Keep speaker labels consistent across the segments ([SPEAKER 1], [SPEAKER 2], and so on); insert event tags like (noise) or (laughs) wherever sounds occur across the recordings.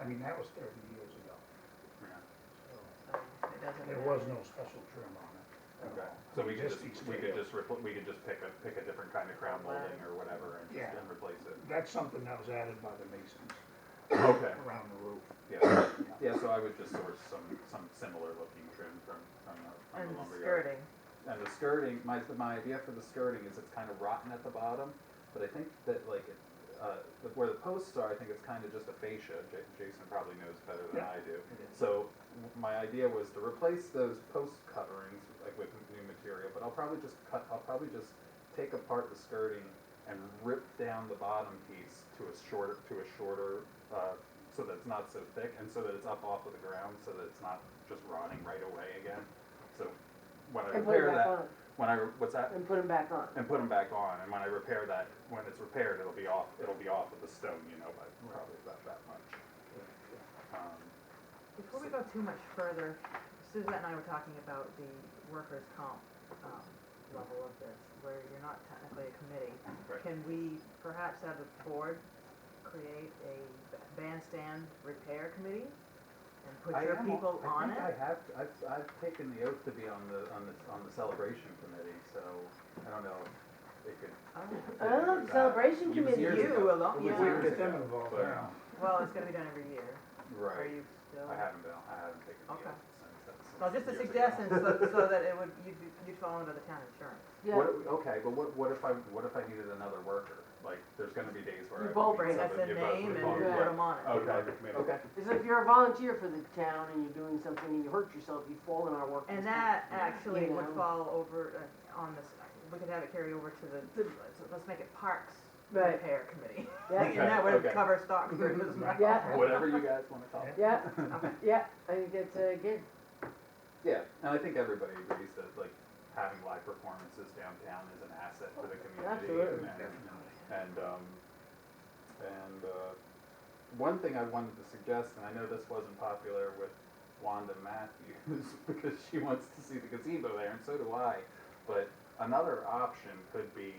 [SPEAKER 1] I mean, that was thirty years ago, so
[SPEAKER 2] so it doesn't
[SPEAKER 1] there
[SPEAKER 2] matter.
[SPEAKER 1] was no special trim on it. at
[SPEAKER 3] Okay,
[SPEAKER 1] all.
[SPEAKER 3] so we could just,
[SPEAKER 1] these
[SPEAKER 3] we could
[SPEAKER 1] tables.
[SPEAKER 3] just, repl- we could just pick a, pick a different kind of crown molding or whatever and just
[SPEAKER 1] Yeah.
[SPEAKER 3] and replace it.
[SPEAKER 1] That's something that was added by the masons
[SPEAKER 3] (coughs) Okay,
[SPEAKER 1] around the roof.
[SPEAKER 3] yeah, yeah, so I would just source some, some similar looking trim from, from the, from
[SPEAKER 2] And
[SPEAKER 3] the
[SPEAKER 2] the
[SPEAKER 3] lumberyard.
[SPEAKER 2] skirting,
[SPEAKER 3] And the skirting, my, my idea for the skirting is it's kind of rotten at the bottom, but I think that like, it- uh, the- where the posts are, I think it's kind of just a fascia. Ja- Jason probably knows better than
[SPEAKER 1] Yeah.
[SPEAKER 3] I do.
[SPEAKER 1] It is.
[SPEAKER 3] So w- my idea was to replace those post coverings like with new material, but I'll probably just cut, I'll probably just take apart the skirting and rip down the bottom piece to a shorter, to a shorter, uh, so that it's not so thick and so that it's up off of the ground, so that it's not just rotting right away again. So when I
[SPEAKER 4] And put
[SPEAKER 3] repair
[SPEAKER 4] them back
[SPEAKER 3] that,
[SPEAKER 4] on,
[SPEAKER 3] when I, re- what's that?
[SPEAKER 4] and put them back on.
[SPEAKER 3] And put them back on, and when I repair that, when it's repaired, it'll be off, it'll be off of the stone, you know, by probably about that much. Um,
[SPEAKER 2] before we go too much further, Suzette and I were talking about the workers' comp, um, level of this, where you're not technically a committee.
[SPEAKER 3] Right.
[SPEAKER 2] Can we perhaps have the board create a bandstand repair committee and put
[SPEAKER 3] I
[SPEAKER 2] your
[SPEAKER 3] am-
[SPEAKER 2] people on it?
[SPEAKER 3] I think I have, I've, I've taken the oath to be on the, on the, on the celebration committee, so I don't know if it could.
[SPEAKER 2] Oh.
[SPEAKER 4] Oh, the celebration
[SPEAKER 3] It was
[SPEAKER 4] committee,
[SPEAKER 3] years
[SPEAKER 2] you
[SPEAKER 3] ago.
[SPEAKER 2] alone-
[SPEAKER 3] It was
[SPEAKER 2] yeah.
[SPEAKER 1] We
[SPEAKER 3] years
[SPEAKER 1] get them
[SPEAKER 3] ago,
[SPEAKER 1] involved
[SPEAKER 3] but-
[SPEAKER 1] now.
[SPEAKER 2] Well, it's gonna be done every year. Are
[SPEAKER 3] Right,
[SPEAKER 2] you still?
[SPEAKER 3] I haven't been, I haven't taken the oath
[SPEAKER 2] Okay.
[SPEAKER 3] since that's.
[SPEAKER 2] Well, just a
[SPEAKER 3] years ago.
[SPEAKER 2] suggestion, so, so that it would, you'd, be- you'd fall under the town insurance.
[SPEAKER 4] Yeah,
[SPEAKER 3] What, okay, but what, what if I, what if I needed another worker? Like, there's gonna be days where I.
[SPEAKER 4] You
[SPEAKER 3] would
[SPEAKER 4] both
[SPEAKER 3] need
[SPEAKER 4] bring
[SPEAKER 2] That's
[SPEAKER 3] someone-
[SPEAKER 2] a
[SPEAKER 3] you both- we
[SPEAKER 2] name and
[SPEAKER 3] both-
[SPEAKER 2] put
[SPEAKER 3] yeah.
[SPEAKER 2] them on it.
[SPEAKER 3] Okay, okay.
[SPEAKER 4] it's like if you're a volunteer for the town and you're doing something and you hurt yourself, you fall in our work.
[SPEAKER 2] And that actually
[SPEAKER 4] You
[SPEAKER 2] would
[SPEAKER 4] know.
[SPEAKER 2] fall over uh, on this, we could have it carry over to the, let's- let's make it Parks
[SPEAKER 4] Right.
[SPEAKER 2] Repair Committee. (laughs)
[SPEAKER 4] Yeah,
[SPEAKER 2] And that would
[SPEAKER 3] Okay.
[SPEAKER 2] cover Stockbridge as well.
[SPEAKER 4] Yeah.
[SPEAKER 3] Whatever you guys wanna call it.
[SPEAKER 2] (laughs)
[SPEAKER 4] yeah,
[SPEAKER 2] Okay.
[SPEAKER 4] yeah, I think that's uh, good.
[SPEAKER 3] Yeah, and I think everybody agrees that like having live performances downtown is an asset for the community.
[SPEAKER 4] Absolutely.
[SPEAKER 3] and- And, um, and, uh, one thing I wanted to suggest, and I know this wasn't popular with Wanda Matthews (laughs) because she wants to see the gazebo there and so do I, but another option could be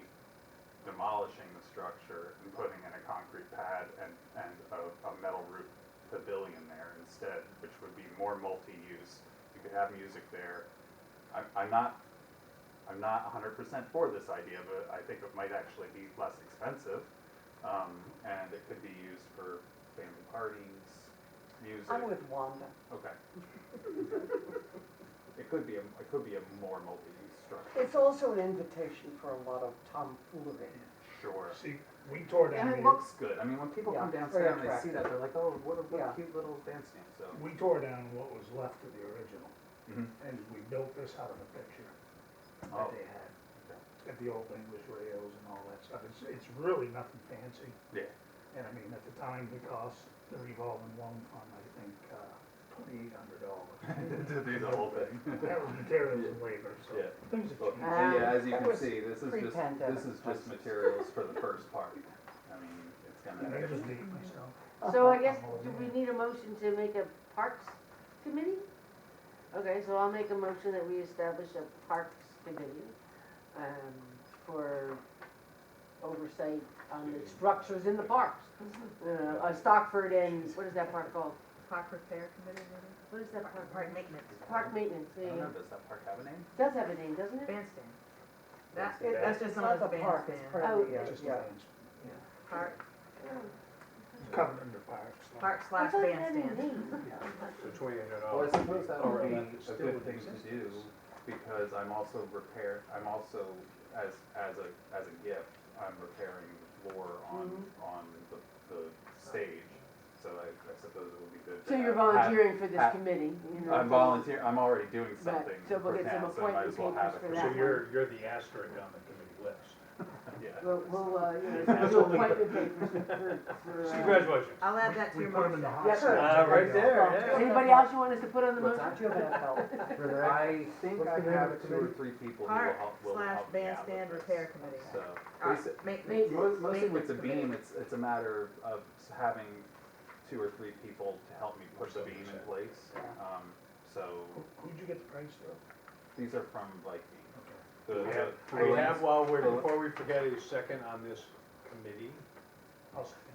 [SPEAKER 3] demolishing the structure and putting in a concrete pad and, and a, a metal roof pavilion there instead, which would be more multi-use. You could have music there. I, I'm not, I'm not hundred percent for this idea, but I think it might actually be less expensive. Um, and it could be used for family parties, music.
[SPEAKER 4] Wanda.
[SPEAKER 5] (laughs)
[SPEAKER 3] Okay. It could be, a it could be a more multi-use structure,
[SPEAKER 5] It's also an invitation for a lot of tomfoolery.
[SPEAKER 3] sure.
[SPEAKER 1] See, we tore down
[SPEAKER 3] And
[SPEAKER 1] the.
[SPEAKER 3] it looks good, I mean, when people come
[SPEAKER 5] Yeah,
[SPEAKER 3] downstairs and
[SPEAKER 5] very
[SPEAKER 3] they see that, they're like, oh, what a, what a
[SPEAKER 5] Yeah.
[SPEAKER 3] cute little bandstand, so.
[SPEAKER 1] We tore down what was left of the original,
[SPEAKER 3] Mhm.
[SPEAKER 1] and we built this out of a picture that
[SPEAKER 3] Oh.
[SPEAKER 1] they had. At the old English rails and all that stuff, it's, it's really nothing fancy,
[SPEAKER 5] (laughs)
[SPEAKER 3] Yeah, (laughs)
[SPEAKER 1] and I mean, at the time, it cost the revolving loan fund, I think, uh, twenty-eight hundred dollars.
[SPEAKER 6] (laughs)
[SPEAKER 3] to do the whole
[SPEAKER 5] (laughs)
[SPEAKER 3] thing.
[SPEAKER 1] That was materials and labor, so
[SPEAKER 3] Yeah.
[SPEAKER 1] things have
[SPEAKER 3] Well,
[SPEAKER 1] changed.
[SPEAKER 3] And yeah, as you
[SPEAKER 5] Um, that
[SPEAKER 3] can
[SPEAKER 5] was
[SPEAKER 3] see, this is just, this
[SPEAKER 5] pre-pandemic
[SPEAKER 3] is just materials for the first part. I mean, it's
[SPEAKER 1] And I just
[SPEAKER 3] gonna,
[SPEAKER 1] date myself.
[SPEAKER 4] So I guess, do we need a motion to make a parks committee? Okay, so I'll make a motion that we establish a parks committee, um, for oversight on the structures in the parks. Uh, uh, Stockford and, what is that park called?
[SPEAKER 2] Park Repair Committee, maybe?
[SPEAKER 4] What is that park
[SPEAKER 2] Park
[SPEAKER 4] called?
[SPEAKER 2] Maintenance.
[SPEAKER 4] Park maintenance,
[SPEAKER 3] I
[SPEAKER 4] yeah,
[SPEAKER 3] don't
[SPEAKER 4] yeah.
[SPEAKER 3] know, does that park have a name?
[SPEAKER 4] Does have a name, doesn't it?
[SPEAKER 2] Bandstand. That,
[SPEAKER 3] Bandstand.
[SPEAKER 2] that's just
[SPEAKER 5] Not
[SPEAKER 2] known as
[SPEAKER 5] the park, it's
[SPEAKER 2] bandstand.
[SPEAKER 5] part of the,
[SPEAKER 4] Oh,
[SPEAKER 5] uh,
[SPEAKER 1] Just
[SPEAKER 5] yeah.
[SPEAKER 1] lands.
[SPEAKER 2] Park,
[SPEAKER 1] It's covered under parks. so-
[SPEAKER 2] park
[SPEAKER 4] I
[SPEAKER 2] slash
[SPEAKER 4] thought it had a
[SPEAKER 2] bandstand.
[SPEAKER 4] name.
[SPEAKER 3] Well, I suppose that would be
[SPEAKER 1] Already
[SPEAKER 3] a
[SPEAKER 1] still
[SPEAKER 3] good
[SPEAKER 1] in
[SPEAKER 3] thing to do,
[SPEAKER 1] existence.
[SPEAKER 3] because I'm also repair, I'm also, as, as a, as a gift, I'm repairing the floor on, on the, the stage, so I, I suppose it would be good to
[SPEAKER 4] So you're
[SPEAKER 3] have- have-
[SPEAKER 4] volunteering for
[SPEAKER 3] ha-
[SPEAKER 4] this committee, you know?
[SPEAKER 3] I'm
[SPEAKER 4] so-
[SPEAKER 3] volunteer, I'm already doing something
[SPEAKER 4] so
[SPEAKER 3] for
[SPEAKER 4] we'll get some
[SPEAKER 3] town, so I might
[SPEAKER 4] appointment
[SPEAKER 3] as well have it for
[SPEAKER 4] papers for
[SPEAKER 3] that.
[SPEAKER 4] that.
[SPEAKER 6] So you're, you're the asterisk on the committee list.
[SPEAKER 3] Yeah,
[SPEAKER 4] We'll, we'll, uh, you know,
[SPEAKER 5] (laughs)
[SPEAKER 4] do appointment papers for,
[SPEAKER 3] (laughs)
[SPEAKER 4] for, uh,
[SPEAKER 6] Congratulations.
[SPEAKER 2] I'll add that to
[SPEAKER 1] We
[SPEAKER 2] your
[SPEAKER 1] put them in
[SPEAKER 2] motion.
[SPEAKER 1] the hot
[SPEAKER 5] Yeah.
[SPEAKER 1] seat.
[SPEAKER 6] Uh, right there, yeah.
[SPEAKER 4] Anybody else you want us to put on the
[SPEAKER 3] What's
[SPEAKER 4] motion?
[SPEAKER 3] that?
[SPEAKER 5] Do you have enough help for that?
[SPEAKER 3] I think
[SPEAKER 5] What's
[SPEAKER 3] I
[SPEAKER 5] the name of
[SPEAKER 3] have
[SPEAKER 5] the
[SPEAKER 3] two or
[SPEAKER 5] committee?
[SPEAKER 3] three people who will
[SPEAKER 2] Park
[SPEAKER 3] help, will
[SPEAKER 2] slash
[SPEAKER 3] help me out with
[SPEAKER 2] bandstand
[SPEAKER 3] this.
[SPEAKER 2] repair committee.
[SPEAKER 3] So, basi-
[SPEAKER 2] All right, maintenance.
[SPEAKER 4] Maintenance.
[SPEAKER 3] Mo- Mostly with
[SPEAKER 2] Maintenance
[SPEAKER 3] the beam,
[SPEAKER 2] committee.
[SPEAKER 3] it's, it's a matter of of having two or three people to help me push the beam in place. Um, So
[SPEAKER 1] Who- Who'd you get the price though?
[SPEAKER 3] these are from Viking. The-
[SPEAKER 6] We have,
[SPEAKER 3] the-
[SPEAKER 6] we have, while we're,
[SPEAKER 3] Well-
[SPEAKER 6] before we forget, a second on this committee.
[SPEAKER 1] I'll second.